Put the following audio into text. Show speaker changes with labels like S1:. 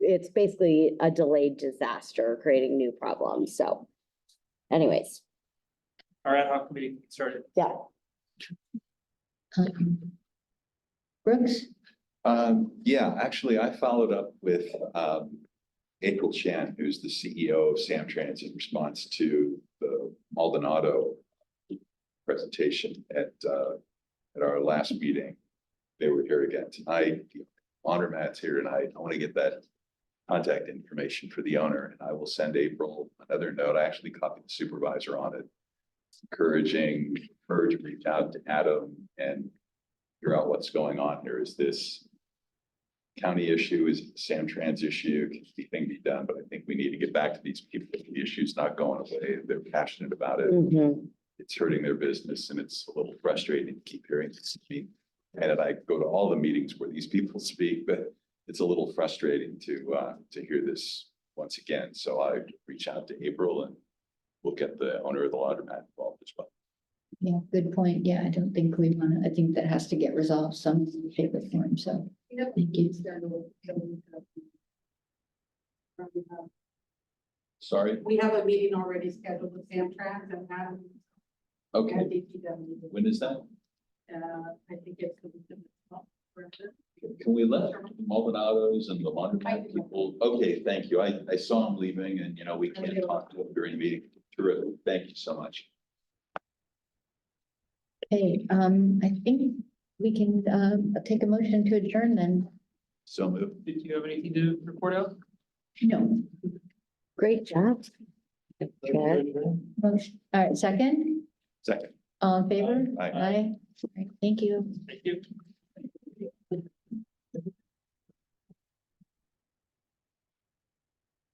S1: it's basically a delayed disaster, creating new problems, so. Anyways,
S2: Our ad hoc committee can get started.
S1: yeah,
S3: Um, Brooks,
S4: Um, yeah, actually, I followed up with, um, April Chan, who's the CEO of Sam Trans in response to the Maldonado presentation at, uh, at our last meeting. They were here again tonight. The Honor Matt's here tonight. I want to get that contact information for the owner and I will send April another note. I actually copied the supervisor on it. Encouraging her to reach out to Adam and figure out what's going on here. Is this county issue? Is it Sam Trans issue? Can anything be done? But I think we need to get back to these people. The issue's not going away. They're passionate about it
S1: mhm,
S4: it's hurting their business and it's a little frustrating to keep hearing this speak. And I go to all the meetings where these people speak, but it's a little frustrating to, uh, to hear this once again. So I reach out to April and we'll get the owner of the laundromat involved as well.
S3: yeah, good point. Yeah, I don't think we want to, I think that has to get resolved some shape or form, so. Thank you.
S4: Sorry.
S5: We have a meeting already scheduled with Sam Trans and Adam.
S4: Okay.
S5: and DPW.
S4: When is that?
S5: Uh, I think it's. the week of the 12th, correct?
S4: Can we let the Maldonados and the laundromat people? Okay, thank you. I, I saw them leaving and, you know, we can't talk to them during the meeting. Terrific. Thank you so much.
S3: Okay, um, I think we can, um, take a motion to adjourn then.
S4: So moved.
S2: Did you have anything to report out?
S3: No,
S1: great job. Okay.
S3: motion, all right, second,
S4: Second.
S3: all in favor? Aye.
S4: Aye.
S3: All right, Thank you.
S2: Thank you.